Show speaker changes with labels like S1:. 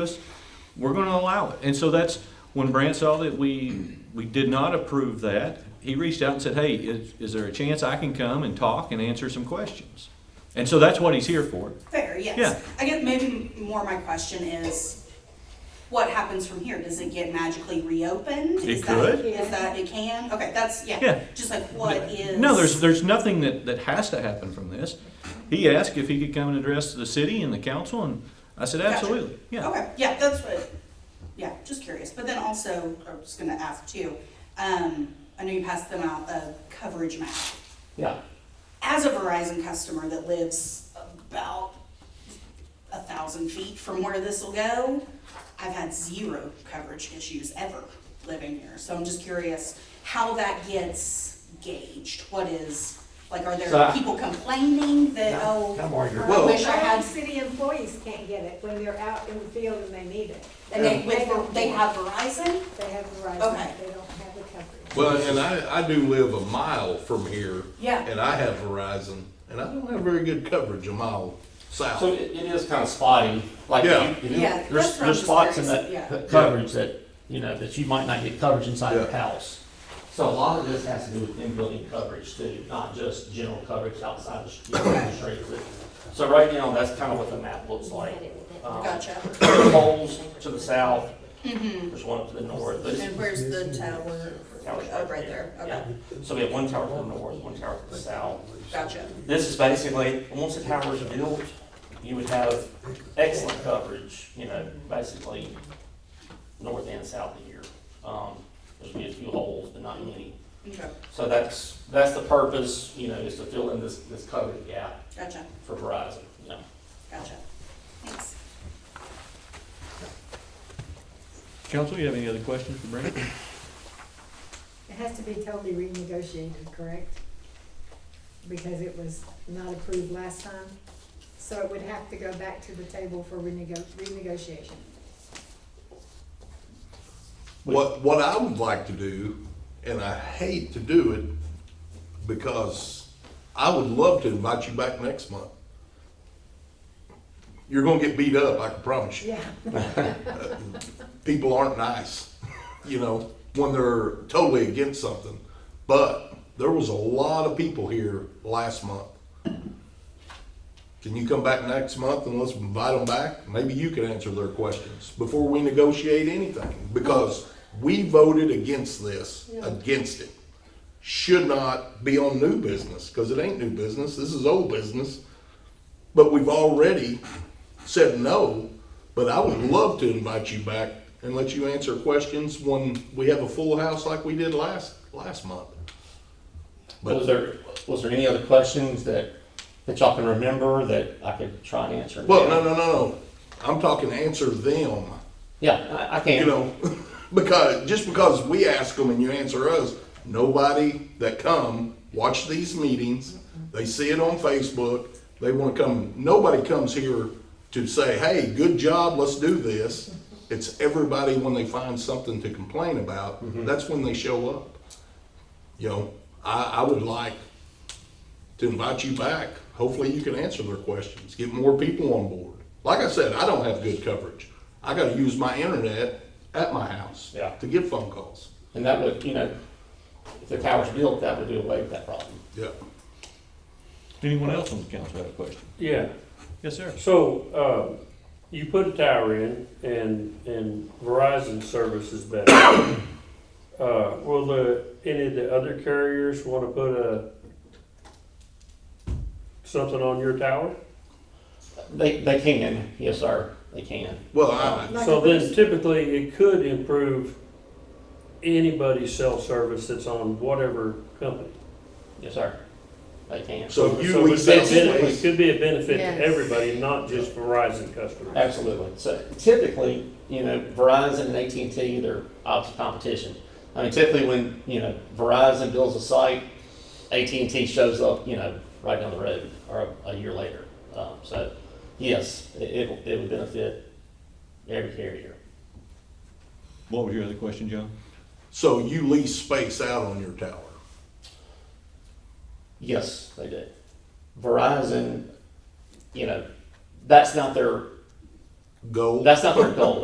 S1: us, we're gonna allow it. And so that's, when Brant saw that we, we did not approve that, he reached out and said, hey, is, is there a chance I can come and talk and answer some questions? And so that's what he's here for.
S2: Fair, yes.
S1: Yeah.
S2: I guess maybe more my question is, what happens from here? Does it get magically reopened?
S1: It
S2: Is that-
S1: could.
S2: Is that, it can? Okay, that's,
S1: Yeah.
S2: yeah, just like what is?
S1: No, there's, there's nothing that, that has to happen from this. He asked if he could come and address the city and the council, and I said,
S2: Gotcha.
S1: absolutely, yeah.
S2: Okay, yeah, that's what, yeah, just curious. But then also, I was gonna ask too, um, I know you passed them out a coverage map.
S3: Yeah,
S2: As a Verizon customer that lives about a thousand feet from where this will go, I've had zero coverage issues ever living here. So I'm just curious how that gets gauged. What is, like, are
S3: So
S2: there
S3: I-
S2: people complaining that, oh,
S3: No, no more, you're-
S2: or I
S3: Well-
S2: wish I had,
S4: City employees can't get it when they're out in the field and they need it.
S2: and they, with, they have Verizon?
S4: They have
S2: Okay.
S4: Verizon, they don't have the coverage.
S5: Well, and I, I do live a mile from here.
S2: Yeah.
S5: And I have Verizon, and I don't have very good coverage a mile south.
S3: so it, it is kind of spotty, like,
S5: Yeah.
S3: you- you know,
S2: Yeah,
S3: there's,
S2: that's what I'm
S3: there's spots in
S2: just
S3: that
S2: curious,
S3: that coverage that, you know, that you might not get coverage inside your
S5: Yeah.
S3: house. So a lot of this has to do with in-building coverage too, not just general coverage outside of the street- streets. So right now, that's kind of what the map looks like. Um,
S2: Gotcha.
S3: There's poles to the south, there's one up to the north, but it's
S2: Mm-hmm. And where's the tower?
S3: towers
S2: Oh, right there,
S3: Yeah.
S2: okay,
S3: So we have one tower to the north, one tower to the south.
S2: gotcha.
S3: This is basically, once the tower is built, you would have excellent coverage, you know, basically north and south of here. Um, there's gonna be a few holes, but not many.
S2: Okay,
S3: So that's, that's the purpose, you know, is to fill in this, this coverage gap
S2: gotcha,
S3: for Verizon, you know.
S2: gotcha. Thanks.
S1: Council, you have any other questions for Brant?
S4: It has to be totally renegotiated, correct? Because it was not approved last time, so it would have to go back to the table for renego- renegotiation.
S5: What, what I would like to do, and I hate to do it, because I would love to invite you back next month. You're gonna get beat up, I can promise you. Uh,
S4: Yeah,
S5: People aren't nice, you know, when they're totally against something. But there was a lot of people here last month. Can you come back next month and let's invite them back? Maybe you can answer their questions before we negotiate anything, because we voted against this, against it. Should not be on new business, because it ain't new business, this is old business. But we've already said no, but I would love to invite you back and let you answer questions when we have a full house like we did last, last month. But-
S3: Was there, was there any other questions that, that y'all can remember that I could try and answer?
S5: Well, no, no, no, no, I'm talking answer them.
S3: Yeah, I, I
S5: you
S3: can.
S5: know, because just because we ask them and you answer us, nobody that come watch these meetings, they see it on Facebook, they want to come. Nobody comes here to say, "Hey, good job, let's do this." It's everybody when they find something to complain about. That's when they show up. You know, I, I would like to invite you back. Hopefully, you can answer their questions, get more people on board. Like I said, I don't have good coverage. I got to use my internet at my house
S3: Yeah.
S5: to get phone calls.
S3: And that would, you know, if the tower's built, that would do away with that problem.
S5: Yeah.
S1: Anyone else on the council have a question?
S6: Yeah,
S1: Yes, sir.
S6: so, um, you put a tower in and, and Verizon service is better. Uh, will the, any of the other carriers wanna put a, something on your tower?
S3: They, they can, yes, sir, they can.
S5: Well, I,
S4: Like a
S6: So then
S4: boost.
S6: typically it could improve anybody's cell service that's on whatever company.
S3: Yes, sir, they can.
S5: so you
S6: So
S5: lease
S6: it's a
S5: out
S6: benefit- it
S5: space.
S6: could be a benefit
S4: Yes.
S6: to everybody, not just Verizon customers.
S3: Absolutely. So typically, you know, Verizon and AT&T, they're opposite competition. I mean, typically when, you know, Verizon builds a site, AT&T shows up, you know, right down the road or a, a year later. Um, so yes, it, it, it would benefit every carrier.
S1: What was your other question, John?
S5: So you lease space out on your tower.
S3: Yes, they do. Verizon, you know, that's not their
S7: goal.
S5: That's not their goal.